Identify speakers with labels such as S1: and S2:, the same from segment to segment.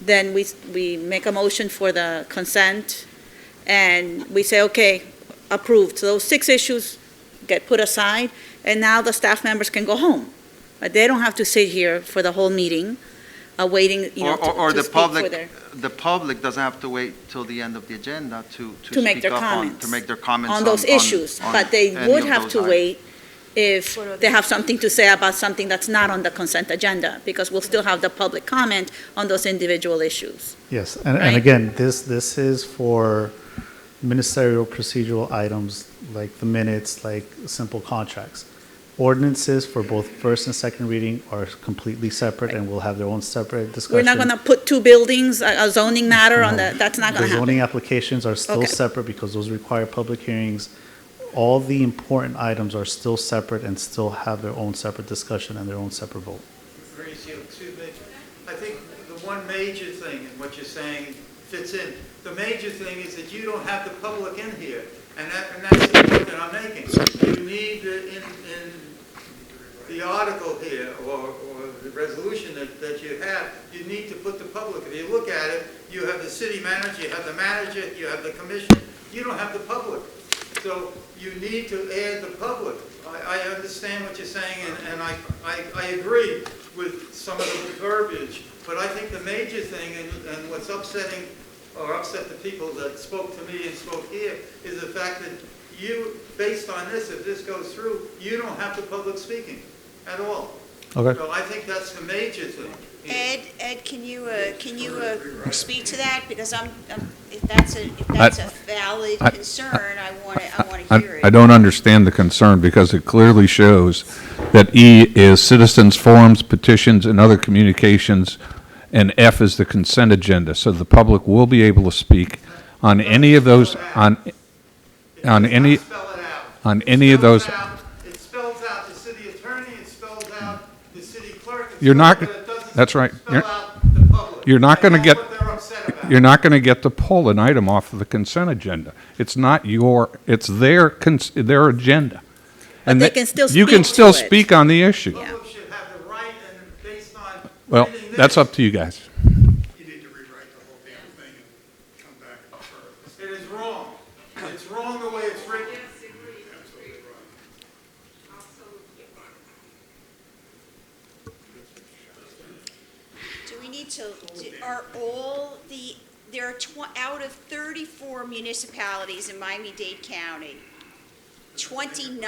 S1: then we, we make a motion for the consent, and we say, okay, approved. So those six issues get put aside, and now the staff members can go home. Uh, They don't have to sit here for the whole meeting, uh, waiting, you know,
S2: Or-
S1: to
S2: or- or
S1: to
S2: the
S1: speak for
S2: public-
S1: their.
S2: The public doesn't have to wait till the end of the agenda to, to
S1: To make
S2: speak
S1: their
S2: up on,
S1: comments.
S2: to make their comments
S1: on
S2: on.
S1: those issues,
S2: on
S1: but they
S2: any
S1: would
S2: of
S1: have
S2: those
S1: to
S2: items.
S1: wait if
S3: For
S1: they have something to say about something that's not on the consent agenda, because we'll still have the public comment on those individual issues.
S4: Yes, and,
S1: Right?
S4: and again, this, this is for ministerial procedural items like the minutes, like simple contracts. Ordinances for both first and second reading are completely separate and will have their own separate
S1: We're
S4: discussion.
S1: not going to put two buildings, a a zoning matter on the, that's not going
S4: The
S1: to happen.
S4: zoning applications are still
S1: Okay.
S4: separate because those require public hearings. All the important items are still separate and still have their own separate discussion and their own separate vote.
S5: Mauricio, excuse me. I think the one major thing in what you're saying fits in. The major thing is that you don't have the public in here, and that, and that's the point that I'm making. You need uh, in, in the article here, or, or the resolution that, that you have, you need to put the public. If you look at it, you have the city manager, you have the manager, you have the commission, you don't have the public. So you need to add the public. I, I understand what you're saying, and, and I, I, I agree with some of the verbiage, but I think the major thing, and, and what's upsetting, or upset the people that spoke to me and spoke here, is the fact that you, based on this, if this goes through, you don't have the public speaking at all.
S4: Okay.
S5: So I think that's the major thing.
S3: Ed, Ed, can you, uh, can you uh, speak to that? Because I'm, I'm- if that's a, if that's a valid
S6: I-
S3: concern, I want to, I want to hear
S6: I
S3: it.
S6: I don't understand the concern because it clearly shows that E is citizens' forums, petitions, and other communications, and F is the consent agenda. So the public will be able to speak on any of those, on,
S5: It
S6: on
S5: does
S6: any-
S5: not spell it out.
S6: on
S5: It
S6: any of
S5: spells
S6: those.
S5: out- It spells out the city attorney, it spells out the city clerk. it
S6: You're not-
S5: spells- but it doesn't
S6: that's right.
S5: spell
S6: You're-
S5: out the public.
S6: you're not
S5: And
S6: gonna
S5: that's
S6: get-
S5: what they're upset about.
S6: You're not going to get to pull an item off of the consent agenda. It's not your, it's their, cons- their agenda. And
S1: they
S6: that-
S1: can still
S6: You can
S1: speak to
S6: still
S1: it.
S6: speak on the issue.
S5: Public should have the right, and based on
S6: Well,
S5: reading
S6: that's
S5: this,
S6: up to you guys.
S7: You need to rewrite the whole damn thing and come back for
S5: It is wrong. It's wrong the way it's written.
S7: absolutely right.
S3: Do we need to, do- are all the, there are tw, out of 34 municipalities in Miami-Dade County, 29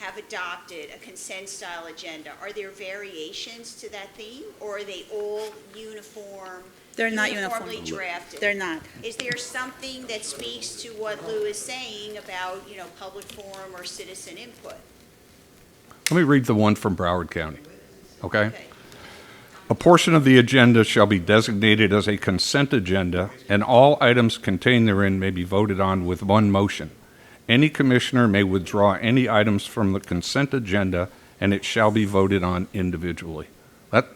S3: have adopted a consent-style agenda. Are there variations to that theme, or are they all uniform?
S1: They're not uniform.
S3: Uniformly drafted?
S1: They're not.
S3: Is there something that speaks to what Lou is saying about, you know, public forum or citizen input?
S6: Let me read the one from Broward County, okay?
S3: Okay.
S6: A portion of the agenda shall be designated as a consent agenda, and all items contained therein may be voted on with one motion. Any commissioner may withdraw any items from the consent agenda, and it shall be voted on individually. That,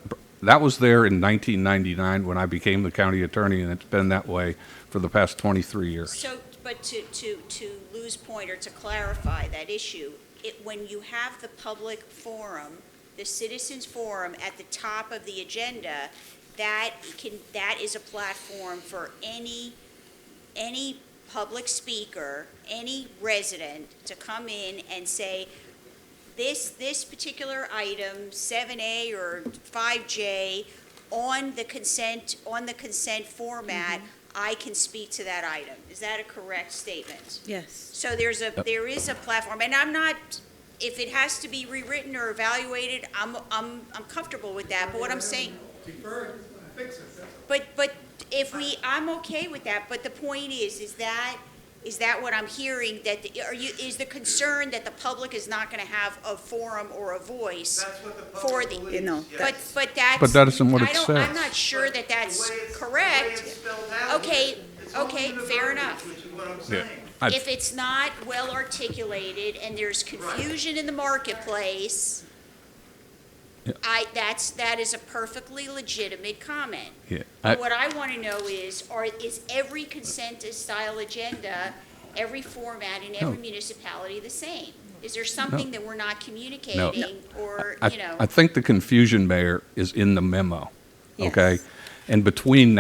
S6: that was there in 1999 when I became the county attorney, and it's been that way for the past 23 years.
S3: So, but to, to, to Lou's point, or to clarify that issue, it, when you have the public forum, the citizens forum at the top of the agenda, that can, that is a platform for any, any public speaker, any resident to come in and say, this, this particular item, seven A or five J, on the consent, on the consent format, I can speak to that item. Is that a correct statement?
S1: Yes.
S3: So there's a, there is a platform, and I'm not, if it has to be rewritten or evaluated, I'm, I'm, I'm comfortable with that, but what I'm saying,
S5: Defer, it, fix it.
S3: but, but if we, I'm okay with that, but the point is, is that, is that what I'm hearing, that, the- are you, is the concern that the public is not gonna have a forum or a voice?
S5: That's what the
S3: For
S5: public
S3: the-
S5: believes.
S1: You know.
S5: yes.
S3: But, but that's.
S6: But that isn't what it
S3: I don't- I'm
S6: says.
S3: not sure that that's
S5: The way it's- the way it's
S3: correct.
S5: spelled out here,
S3: Okay,
S5: it's all
S3: okay,
S5: in the
S3: fair
S5: verbiage,
S3: enough.
S5: Which is what I'm
S6: Yeah.
S5: saying.
S6: I-
S3: If it's not well articulated and there's confusion in the marketplace,
S6: Yeah.
S3: I, that's, that is a perfectly legitimate comment.
S6: Yeah, I-
S3: But What I want to know is, are, is every consent-style agenda, every format in every
S6: No.
S3: municipality the same? Is there something that we're not communicating, or,
S6: I-
S3: you know?
S6: I think the confusion, Mayor, is in the memo,
S1: Yes.
S6: okay? And between